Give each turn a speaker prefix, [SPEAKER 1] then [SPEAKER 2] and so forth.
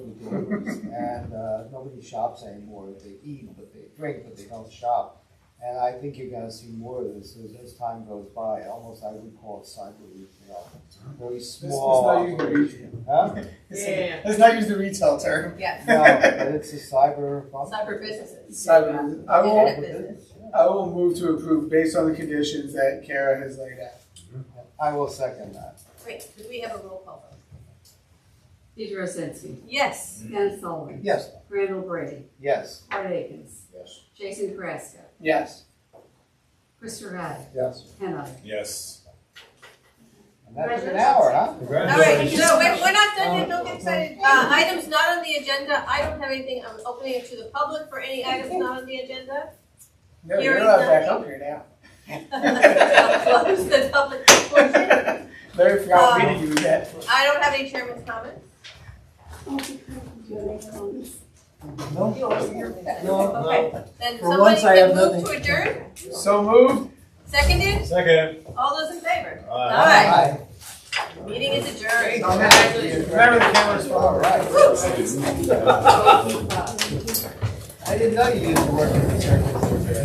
[SPEAKER 1] food deliveries, and uh, nobody shops anymore. They eat, but they drink, but they don't shop. And I think you're going to see more of this as, as time goes by. Almost, I would call it cyber retail. Very
[SPEAKER 2] Let's, let's
[SPEAKER 1] small.
[SPEAKER 2] not use the retail.
[SPEAKER 1] huh?
[SPEAKER 3] Yeah.
[SPEAKER 2] Let's not use the retail term.
[SPEAKER 4] Yes,
[SPEAKER 1] No, but it's a cyber. Oh,
[SPEAKER 4] cyber businesses.
[SPEAKER 2] Cyber- I will-
[SPEAKER 4] Internet business.
[SPEAKER 2] I will move to approve based on the conditions that Kara has laid out.
[SPEAKER 1] I will second that.
[SPEAKER 4] Great, do we have a roll call vote?
[SPEAKER 3] Deidre Osensky,
[SPEAKER 4] Yes,
[SPEAKER 3] Ben Sullivan,
[SPEAKER 1] Yes.
[SPEAKER 3] Randall Brady,
[SPEAKER 1] Yes.
[SPEAKER 3] Art Akins,
[SPEAKER 5] Yes.
[SPEAKER 3] Jason Carrasco,
[SPEAKER 2] Yes.
[SPEAKER 3] Christopher Haddad,
[SPEAKER 1] Yes.
[SPEAKER 3] and others.
[SPEAKER 5] Yes.
[SPEAKER 1] And that took an hour, huh?
[SPEAKER 4] all right, no, wait, we're not done yet, don't get excited. Uh, items not on the agenda, I don't have anything, I'm opening it to the public for any items not on the agenda.
[SPEAKER 2] No,
[SPEAKER 4] Here
[SPEAKER 2] you're
[SPEAKER 4] is
[SPEAKER 2] allowed back
[SPEAKER 4] nothing.
[SPEAKER 2] up here now.
[SPEAKER 4] I'll Close the public portion.
[SPEAKER 2] Larry forgot we
[SPEAKER 4] Um,
[SPEAKER 2] didn't do that.
[SPEAKER 4] I don't have any chairman's comments.
[SPEAKER 1] No. No, no.
[SPEAKER 4] Uh, Okay, then
[SPEAKER 1] For once,
[SPEAKER 4] somebody
[SPEAKER 1] I
[SPEAKER 4] can
[SPEAKER 1] have
[SPEAKER 4] move to adjourn,
[SPEAKER 2] So moved.
[SPEAKER 4] seconded,
[SPEAKER 5] Second.
[SPEAKER 4] all those in favor?
[SPEAKER 5] Aye.
[SPEAKER 4] Aye,
[SPEAKER 1] Aye.
[SPEAKER 4] meeting is adjourned.
[SPEAKER 2] Remember the camera's
[SPEAKER 1] All
[SPEAKER 2] for
[SPEAKER 1] right. I didn't know you used to work in the church.